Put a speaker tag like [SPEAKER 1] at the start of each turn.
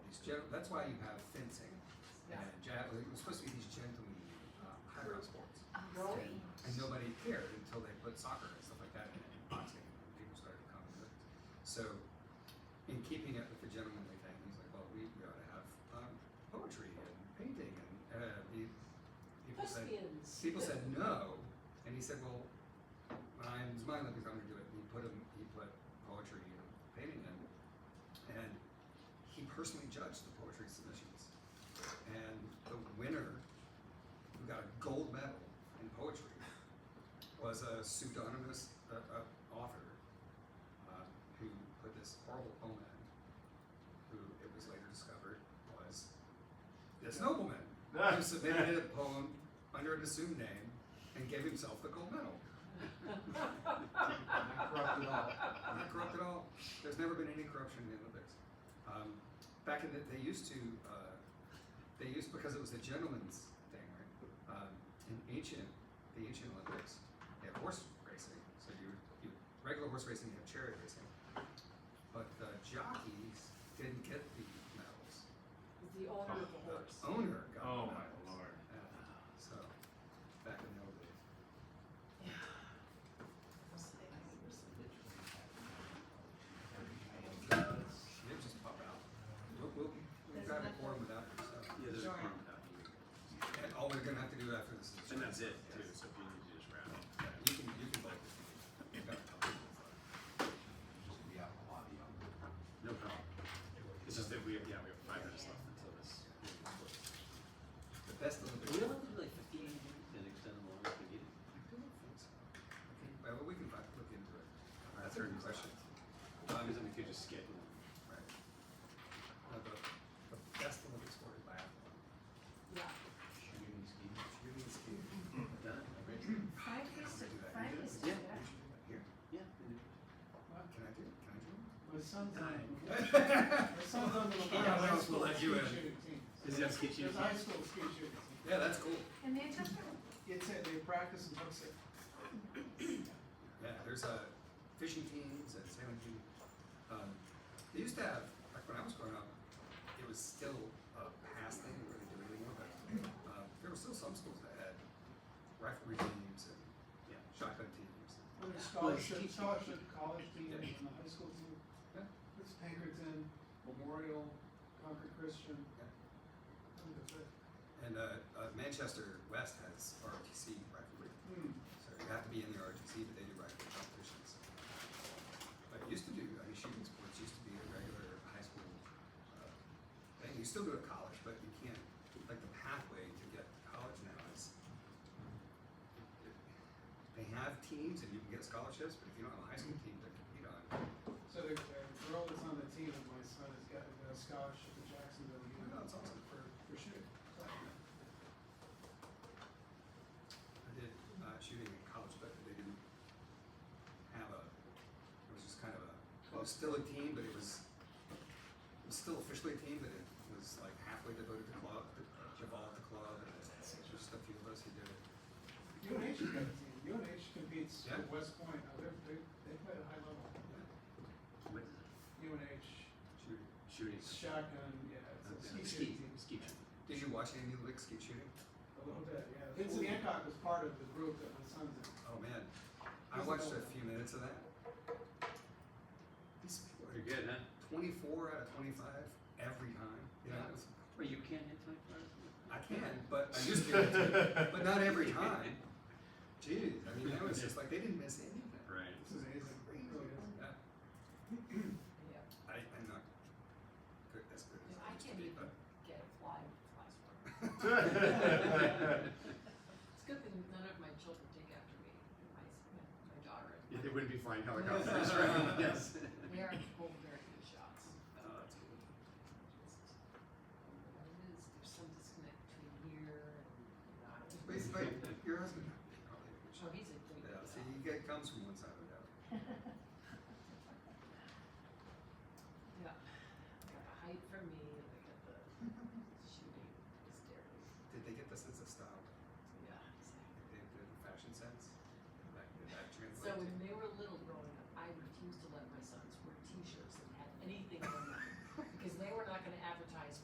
[SPEAKER 1] gen- that's why you have fencing.
[SPEAKER 2] Yeah.
[SPEAKER 1] And ja- it was supposed to be these gentlemen, um, highbrow sports.
[SPEAKER 2] Well,
[SPEAKER 1] And nobody cared until they put soccer and stuff like that in and boxing. And people started to come. to it. So, in keeping it with the gentlemanly thing, he's like, well, we, we ought to have um, poetry and painting. And uh, he, people said,
[SPEAKER 3] Thespians.
[SPEAKER 1] people said no, and he said, "Well, I'm smiling because I'm going to do it." And he put him, he put poetry and painting in, and he personally judged the poetry submissions. And the winner, who got a gold medal in poetry, was a pseudonymous uh, uh, author uh, who put this horrible poem in. Who it was later discovered was this nobleman who submitted a poem under an assumed name and gave himself the gold medal.
[SPEAKER 4] Not corrupt at all.
[SPEAKER 1] Not corrupt at all. There's never been any corruption in the Olympics. Um, back in the, they used to, uh, they used because it was a gentleman's thing, right? Um, in ancient, the ancient Olympics, they had horse racing. So you, you regular horse racing, you have chariot racing, but the jockeys didn't get the medals.
[SPEAKER 3] The owner of the horse.
[SPEAKER 1] The owner got
[SPEAKER 4] Oh,
[SPEAKER 1] the
[SPEAKER 4] my
[SPEAKER 1] medals.
[SPEAKER 4] lord.
[SPEAKER 1] Yeah. So back in the old days. They just pop out. We'll, we'll, we've got a quorum without you, so.
[SPEAKER 5] Yeah, there's a
[SPEAKER 2] Sure.
[SPEAKER 5] problem with that.
[SPEAKER 1] And all we're gonna have to do after this is.
[SPEAKER 5] And that's it, too, so if you need to just wrap it.
[SPEAKER 1] Yeah, You can, you can vote. You've got a couple of minutes left.
[SPEAKER 5] No problem. It's just that we have, yeah, we have five minutes left until this. meeting is closed.
[SPEAKER 1] The best of the.
[SPEAKER 6] We only have like fifteen minutes and extend the longer if we need it.
[SPEAKER 1] I don't think so. Okay, well, we can back- look into it.
[SPEAKER 5] Our
[SPEAKER 1] That's a good
[SPEAKER 5] attorney's
[SPEAKER 1] question.
[SPEAKER 5] Um, Because then we could just schedule.
[SPEAKER 1] Right. Uh, the, the best of the sport is biathlon.
[SPEAKER 3] Yeah.
[SPEAKER 1] Shooting skiing.
[SPEAKER 5] Done.
[SPEAKER 2] Frank used to, Frank used to do
[SPEAKER 6] Yeah.
[SPEAKER 2] that.
[SPEAKER 1] Here,
[SPEAKER 6] Yeah.
[SPEAKER 1] can I do it? Can I join?
[SPEAKER 7] My son's on,
[SPEAKER 1] yeah,
[SPEAKER 7] my son's on the Levant
[SPEAKER 1] Yeah,
[SPEAKER 7] High
[SPEAKER 1] we'll
[SPEAKER 7] School
[SPEAKER 1] let
[SPEAKER 7] ski
[SPEAKER 1] you in.
[SPEAKER 7] shooting team.
[SPEAKER 5] Is that ski shooting?
[SPEAKER 7] There's high school ski shooting. team.
[SPEAKER 1] that's cool.
[SPEAKER 2] And they took them,
[SPEAKER 7] It's, a- they practice and hooks it.
[SPEAKER 1] Yeah, there's uh, fishing teams and sailing teams. Um, they used to have, like when I was growing up, it was still a past thing, they really do it anymore, but um, there were still some schools that had riflery teams and
[SPEAKER 5] Yeah.
[SPEAKER 1] shotgun teams.
[SPEAKER 7] Well, there's
[SPEAKER 6] Well, it's
[SPEAKER 7] scholarship,
[SPEAKER 6] teaching.
[SPEAKER 7] scholarship, college team,
[SPEAKER 1] Yeah.
[SPEAKER 7] and the high school team.
[SPEAKER 1] Yeah.
[SPEAKER 7] It's Pinkerton, Memorial, Concord Christian.
[SPEAKER 1] Yeah.
[SPEAKER 7] And that's it.
[SPEAKER 1] And uh, uh, Manchester West has ROTC riflery.
[SPEAKER 7] Hmm.
[SPEAKER 1] So you have to be in the ROTC, but they do rifle competitions. But it used to do, I mean, shooting sports used to be a regular high school uh, thing. You still go to college, but you can't, like, the pathway to get to college now is they have teams and you can get scholarships, but if you don't have a high school team to compete on,
[SPEAKER 7] So the, the girl that's on the team of my son has got a scholarship to Jacksonville
[SPEAKER 1] Oh,
[SPEAKER 7] University
[SPEAKER 1] that's awesome.
[SPEAKER 7] for, for shooting.
[SPEAKER 1] I did uh, shooting in college, but they didn't have a. It was just kind of a. It was still a team, but it was. It was still officially a team, but it was like halfway devoted to club, to, to ball at the club, and it's just a few of us who did it.
[SPEAKER 7] UNH has got a team. UNH competes
[SPEAKER 1] Yeah.
[SPEAKER 7] with West Point. Now they're, they, they play at a high level.
[SPEAKER 5] What is it?
[SPEAKER 7] UNH,
[SPEAKER 1] Shooting.
[SPEAKER 5] Shooting.
[SPEAKER 7] shotgun, yeah, it's a
[SPEAKER 5] Okay.
[SPEAKER 7] ski shooting team.
[SPEAKER 5] Ski shooting.
[SPEAKER 1] Did you watch any of the Olympic skeet shooting?
[SPEAKER 7] A little bit, yeah. Vincent Hancock was part of the group that my son's in.
[SPEAKER 1] Oh man, I
[SPEAKER 7] Isn't
[SPEAKER 1] watched a
[SPEAKER 7] that-
[SPEAKER 1] few minutes of that. These people are
[SPEAKER 5] You're good, huh?
[SPEAKER 1] twenty-four out of twenty-five every time. You know,
[SPEAKER 6] Yeah.
[SPEAKER 1] it's-
[SPEAKER 6] Wait, you can't hit twenty-four hours?
[SPEAKER 1] I can, but I used to, be able to, but not every time. Jeez, I mean, that was just like they didn't miss anything.
[SPEAKER 5] Right.
[SPEAKER 7] This is amazing. It really is.
[SPEAKER 1] Yeah,
[SPEAKER 3] Yeah.
[SPEAKER 1] I, I'm not good as good as I
[SPEAKER 3] I
[SPEAKER 1] used to
[SPEAKER 3] can't
[SPEAKER 1] be,
[SPEAKER 3] even
[SPEAKER 1] but
[SPEAKER 3] get a fly with flies work. It's good that none of my children take after me, my, my daughter.
[SPEAKER 5] Yeah,
[SPEAKER 3] and my-
[SPEAKER 5] They wouldn't be flying helicopters, right? Yes.
[SPEAKER 3] They are both very good shots. but
[SPEAKER 5] Oh, that's good.
[SPEAKER 3] just- I don't know what it is, there's some disconnect between here and, you know, I don't know.
[SPEAKER 1] but, it's like your husband. probably would
[SPEAKER 3] Oh,
[SPEAKER 1] show-
[SPEAKER 3] he's a great
[SPEAKER 1] Yeah, see,
[SPEAKER 3] shot.
[SPEAKER 1] he get- comes from one side of the other.
[SPEAKER 3] Yeah, they got the height from me, and they got the shooting, hysterics,
[SPEAKER 1] Did they get the sense of style?
[SPEAKER 3] yeah, exactly.
[SPEAKER 1] Did they get the fashion sense?